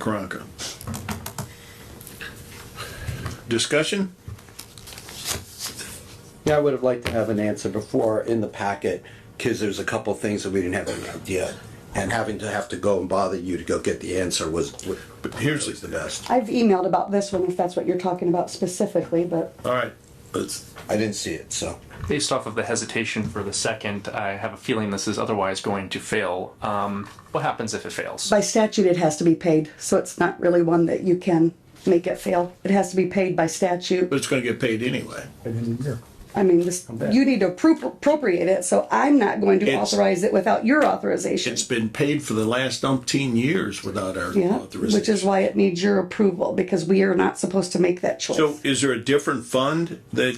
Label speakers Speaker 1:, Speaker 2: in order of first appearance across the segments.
Speaker 1: Karanka. Discussion?
Speaker 2: Yeah, I would have liked to have an answer before in the packet, because there's a couple things that we didn't have any idea. And having to have to go and bother you to go get the answer was, was-
Speaker 1: But here's,
Speaker 2: was the best.
Speaker 3: I've emailed about this one, if that's what you're talking about specifically, but
Speaker 1: all right,
Speaker 2: It's- I didn't see it, so.
Speaker 4: Based off of the hesitation for the second, I have a feeling this is otherwise going to fail. Um, what happens if it fails?
Speaker 3: by statute, it has to be paid, so it's not really one that you can make it fail. It has to be paid by statute.
Speaker 1: but it's gonna get paid anyway.
Speaker 3: I mean, this, you need to appro- appropriate it, so I'm not going to
Speaker 1: It's-
Speaker 3: authorize it without your authorization.
Speaker 1: It's been paid for the last umpteen years without our
Speaker 3: Yeah, which is
Speaker 1: authorization.
Speaker 3: why it needs your approval, because we are not supposed to make that
Speaker 1: So
Speaker 3: choice.
Speaker 1: is there a different fund that,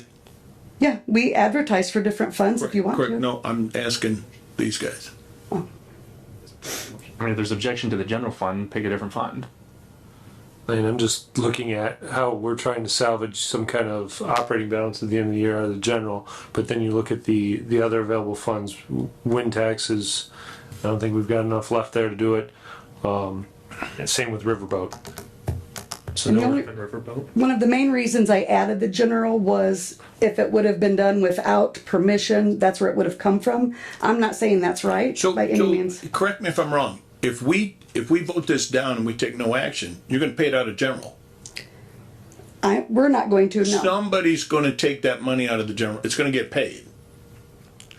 Speaker 3: Yeah, we advertise for different funds if you want
Speaker 1: correct,
Speaker 3: to.
Speaker 1: no, I'm asking these guys.
Speaker 4: I mean, if there's objection to the general fund, pick a different fund.
Speaker 5: I mean, I'm just looking at how we're trying to salvage some kind of operating balance at the end of the year out of the general, but then you look at the, the other available funds, w- wind taxes, I don't think we've got enough left there to do it. Um, and same with riverboat. So
Speaker 3: And the
Speaker 5: no,
Speaker 3: only- One of the main reasons I added the general was if it would have been done without permission, that's where it would have come from. I'm not saying that's right
Speaker 1: So,
Speaker 3: by any
Speaker 1: so,
Speaker 3: means.
Speaker 1: correct me if I'm wrong, if we, if we vote this down and we take no action, you're gonna pay it out of general.
Speaker 3: I, we're not going to, no,
Speaker 1: Somebody's gonna take that money out of the general, it's gonna get paid.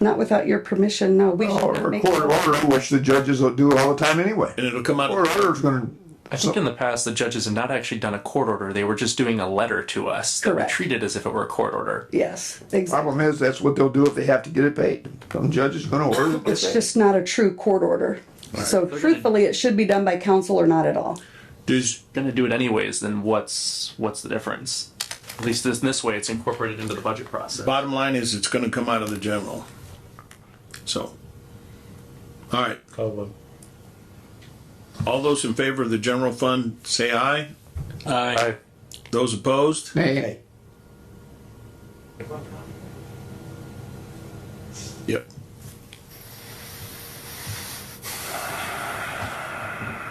Speaker 3: not without your permission, no, we should not
Speaker 6: Or a
Speaker 3: make.
Speaker 6: court order, which the judges will do all the time anyway.
Speaker 1: And it'll come out
Speaker 6: Court
Speaker 1: of,
Speaker 6: order's gonna,
Speaker 4: I think in the past, the judges had not actually done a court order. They were just doing a letter to us that
Speaker 3: Correct.
Speaker 4: we treated as if it were a court order.
Speaker 3: Yes, exactly.
Speaker 6: problem is, that's what they'll do if they have to get it paid. Some judge is gonna order. it.
Speaker 3: It's just not a true court order. So truthfully, it should be done by council or not at all.
Speaker 1: does,
Speaker 4: Going to do it anyways, then what's what's the difference? At least this, this way, it's incorporated into the budget process.
Speaker 1: Bottom line is, it's gonna come out of the general. So. All right,
Speaker 5: problem.
Speaker 1: all those in favor of the general fund, say aye.
Speaker 5: I,
Speaker 1: Those opposed?
Speaker 6: Nay,
Speaker 1: Yep.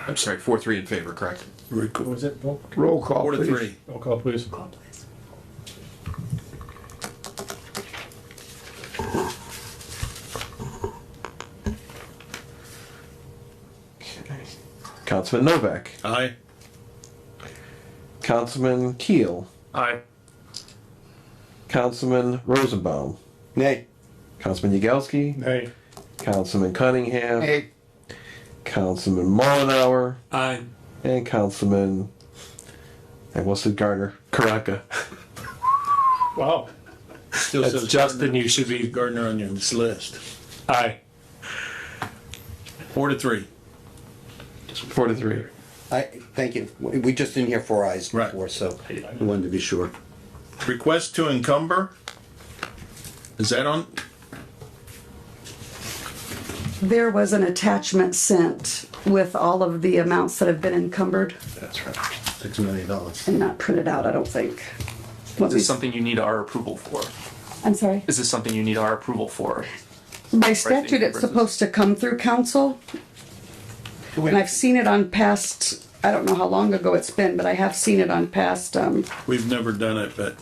Speaker 7: I'm sorry, four, three in favor, correct?
Speaker 1: Record.
Speaker 6: roll call,
Speaker 1: Four to
Speaker 6: please.
Speaker 1: three.
Speaker 5: roll call please.
Speaker 8: Councilman Novak,
Speaker 1: Aye.
Speaker 8: Councilman Keel,
Speaker 4: Aye.
Speaker 8: Councilman Rosenbaum,
Speaker 2: Nay.
Speaker 8: Councilman Yagowski,
Speaker 5: Hey,
Speaker 8: Councilman Cunningham,
Speaker 6: Nay,
Speaker 8: Councilman Mullenhour,
Speaker 4: Aye.
Speaker 8: and Councilman. And what's it, Garner? Karaka.
Speaker 5: wow,
Speaker 1: Still
Speaker 5: that's
Speaker 1: says
Speaker 5: Justin, you should be,
Speaker 1: Gardner on your list.
Speaker 5: aye.
Speaker 1: Four to three.
Speaker 8: Four to three.
Speaker 2: I, thank you. We we just didn't hear four eyes
Speaker 1: Right.
Speaker 2: before, so we wanted to be sure.
Speaker 1: Request to encumber. Is that on?
Speaker 3: There was an attachment sent with all of the amounts that have been encumbered
Speaker 2: That's right. Six million dollars.
Speaker 3: and not printed out, I don't think. What
Speaker 4: Is this
Speaker 3: we-
Speaker 4: something you need our approval for?
Speaker 3: I'm sorry.
Speaker 4: Is this something you need our approval for?
Speaker 3: By statute, it's
Speaker 4: encumbrances.
Speaker 3: supposed to come through council. And I've seen it on past, I don't know how long ago it's been, but I have seen it on past, um,
Speaker 1: We've never done it, but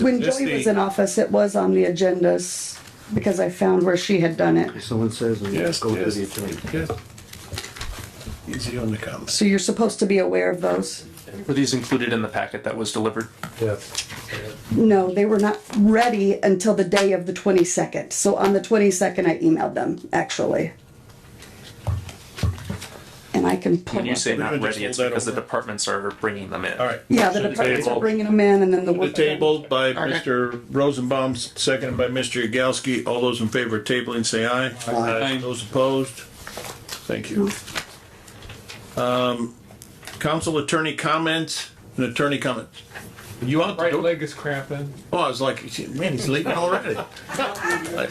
Speaker 3: when
Speaker 1: This
Speaker 3: Joey was
Speaker 1: the-
Speaker 3: in office, it was on the agendas because I found where she had done it.
Speaker 2: Someone says, and
Speaker 1: Yes,
Speaker 2: go to
Speaker 1: yes.
Speaker 2: the attorney.
Speaker 1: easy on the comments.
Speaker 3: So you're supposed to be aware of those.
Speaker 4: Were these included in the packet that was delivered?
Speaker 5: Yeah.
Speaker 3: No, they were not ready until the day of the twenty-second. So on the twenty-second, I emailed them, actually. And I can pull
Speaker 4: When you
Speaker 3: up.
Speaker 4: say
Speaker 1: We're
Speaker 4: not
Speaker 1: gonna just
Speaker 4: ready, it's
Speaker 1: hold that
Speaker 4: because the
Speaker 1: over.
Speaker 4: departments are bringing them in.
Speaker 1: All right.
Speaker 3: Yeah, the departments are
Speaker 5: table.
Speaker 3: bringing them in and then the.
Speaker 1: The
Speaker 3: work-
Speaker 1: table by Mr. Rosenbaum, seconded by Mr. Yagowski. All those in favor of tabling, say aye. Aye. Those opposed? Thank you. Um, council attorney comments, and attorney comments. You out the
Speaker 9: Right
Speaker 1: door?
Speaker 9: leg is cramping.
Speaker 1: Oh, I was like, man, he's leaving already. Like,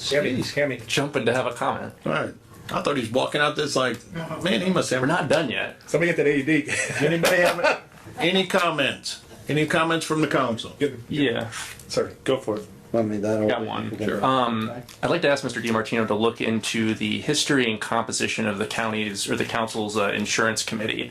Speaker 4: Jumping to have a comment.
Speaker 1: all right. I thought he was walking out this like, man, he must have.
Speaker 4: We're not done yet.
Speaker 9: Somebody get that AED.
Speaker 1: Anybody have any comments? Any comments from the council?
Speaker 4: Yeah.
Speaker 9: Sorry, go for it.
Speaker 2: I mean, that'll.
Speaker 4: Got one, I'd like to ask Mr. DiMartino to look into the history and composition of the county's or the council's uh, insurance committee.